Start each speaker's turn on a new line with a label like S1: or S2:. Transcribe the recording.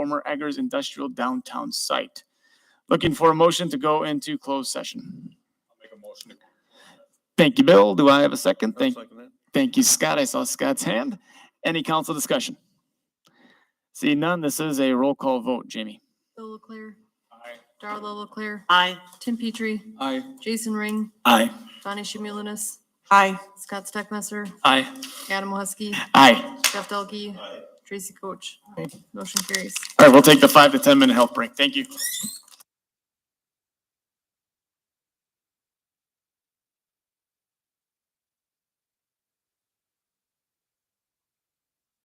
S1: former Eggers Industrial Downtown Site. Looking for a motion to go into closed session.
S2: Make a motion.
S1: Thank you, Bill. Do I have a second? Thank,
S2: Second that.
S1: thank you, Scott. I saw Scott's hand. Any council discussion? Seeing none, this is a roll call vote. Jamie?
S3: Bill Leclerc,
S2: Aye.
S3: Darla Leclerc,
S4: Aye.
S3: Tim Petrie,
S2: Aye.
S3: Jason Ring,
S1: Aye.
S3: Donnie Shamulin,
S4: Aye.
S3: Scott Steckmesser,
S1: Aye.
S3: Adam Huskey,
S1: Aye.
S3: Jeff Delkey, Tracy Coach. Motion carries.
S1: All right, we'll take the five to 10 minute health break. Thank you.